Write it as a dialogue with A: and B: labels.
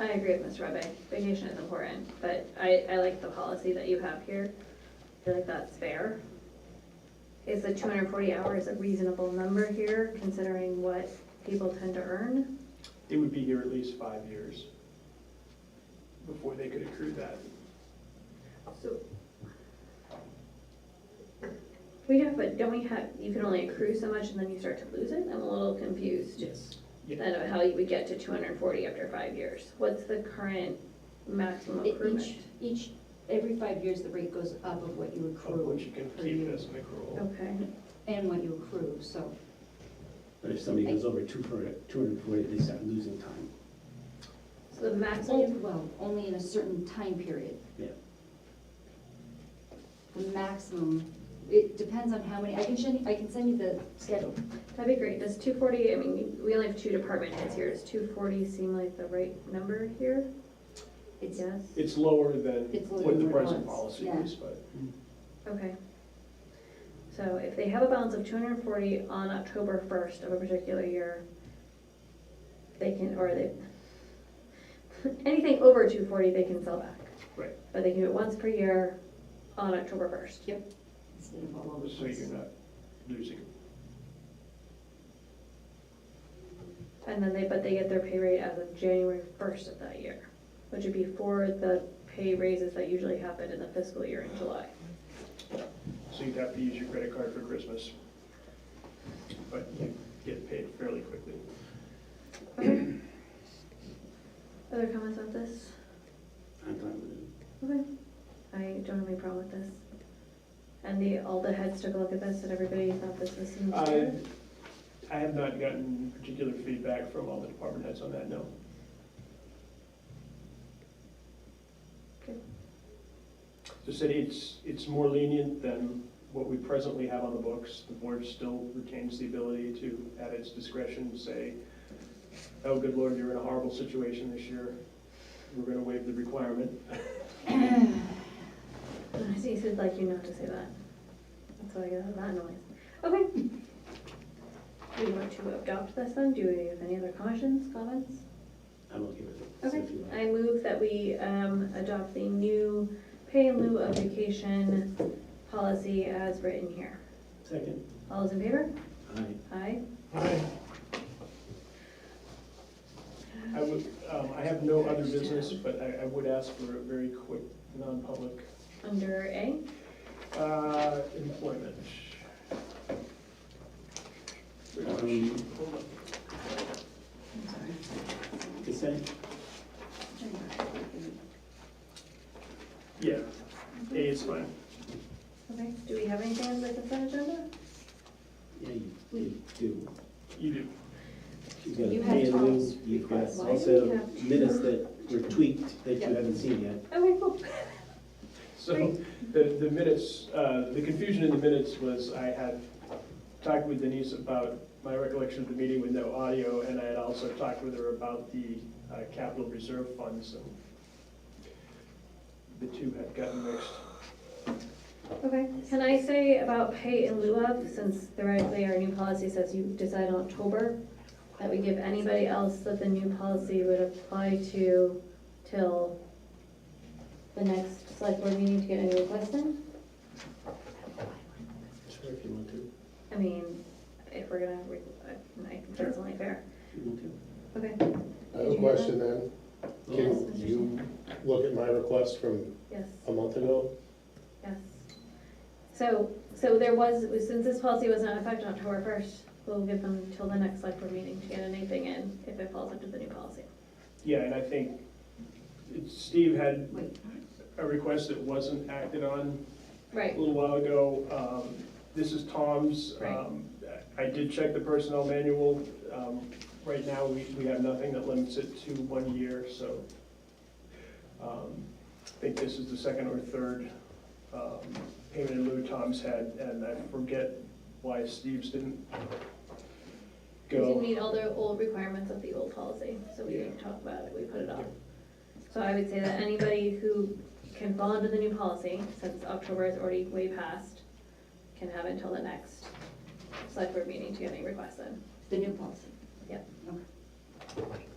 A: I agree with Ms. Rebbe, vacation is important, but I, I like the policy that you have here. I feel like that's fair. Is the two hundred and forty hours a reasonable number here, considering what people tend to earn?
B: They would be here at least five years before they could accrue that.
A: So. We have, but don't we have, you can only accrue so much and then you start to lose it? I'm a little confused
B: Yes.
A: then of how you would get to two hundred and forty after five years. What's the current maximum accruement?
C: E- Each, each, every five years, the rate goes up of what you
B: Of which
C: accrue
B: you can
C: For
B: keep
C: you.
B: as an accrual.
A: Okay,
C: and what you accrue, so.
D: But if somebody goes over two hundred and forty, they start losing time.
A: so the
C: Only-
A: maximum,
C: Well, only in a certain time period.
D: Yeah.
C: The maximum, it depends on how many, I can send, I can send you the schedule.
A: that'd be great. Does two forty, I mean, we only have two department heads here. Does two forty seem like the right number here?
C: It's,
A: Yes,
B: It's lower than
C: It's lower
B: what
C: than
B: the
C: what it
B: present
C: was,
B: policy
C: yeah.
B: is, but
A: okay. So if they have a balance of two hundred and forty on October first of a particular year, they can, or they, anything over two forty, they can sell back.
B: Right.
A: But they can do it once per year on October first.
C: instead of all over the
B: so
C: place.
B: you're not losing.
A: And then they, but they get their pay rate as of January first of that year, which would be for the pay raises that usually happen in the fiscal year in July.
B: So you'd have to use your credit card for Christmas. But you get paid fairly quickly.
A: Other comments on this?
D: I'm fine with it.
A: Okay, I don't have any problem with this. And the, all the heads took a look at this and everybody thought this was
B: I,
A: sincere.
B: I have not gotten particular feedback from all the department heads on that, no.
A: Okay.
B: The city, it's, it's more lenient than what we presently have on the books. The board still retains the ability to, at its discretion, say, oh, good lord, you're in a horrible situation this year. We're gonna waive the requirement.
A: He said like you not to say that. That's why I got that noise. Okay. Do you want to adopt this then? Do you have any other cautions, comments?
D: I'm okay with it. So
A: Okay,
D: if you want-
A: I move that we um, adopt the new pay in lieu of vacation policy as written here.
D: Second,
A: All those in favor?
D: aye.
A: Aye.
B: I would, um, I have no other business, but I, I would ask for a very quick, non-public,
A: Under A,
B: uh, employment.
D: Um,
B: Hold on.
C: I'm sorry.
D: Consent,
B: Yeah, A is fine.
A: okay, do we have anything on the consent agenda?
D: yeah, you, you do.
B: You do.
D: You've got a
C: You have
D: pay in lieu,
C: Tom's
D: you've got
C: request. Why
A: do we
D: also
A: have-
D: minutes that were tweaked that you
C: Yeah.
D: haven't seen yet.
A: Okay, cool.
B: So the, the minutes, uh, the confusion in the minutes was I had talked with Denise about my recollection of the meeting with no audio, and I had also talked with her about the uh, capital reserve funds, and the two had gotten mixed.
A: Okay, can I say about pay in lieu of, since theoretically our new policy says you decide in October, that we give anybody else that the new policy would apply to till the next select board meeting to get any requests in?
D: Sure, if you want to.
A: I mean, if we're gonna, re- I- I think that's only fair.
D: If you want to.
A: Okay,
E: I have a question then.
A: Yes,
E: Can
A: Mr.
E: you look at my request from
A: yes,
E: a month ago?
A: yes. So, so there was, since this policy was not effective on October first, we'll give them till the next select board meeting to get anything in if it falls under the new policy.
B: Yeah, and I think Steve had
C: Wait,
B: a request that wasn't acted on, a
A: Right,
B: little while ago. Um, This is Tom's.
A: Right.
B: Um, I did check the personnel manual. Um, Right now, we, we have nothing that limits it to one year, so um, I think this is the second or third um, payment in lieu Tom's had, and I forget why Steve's didn't
A: we didn't
B: go.
A: meet all the old requirements of the old policy, so we didn't talk about it, we put it off. So I would say that anybody who can fall under the new policy, since October is already way past, can have until the next select board meeting to get any requests in.
C: The new policy.
A: Yep.
C: Okay.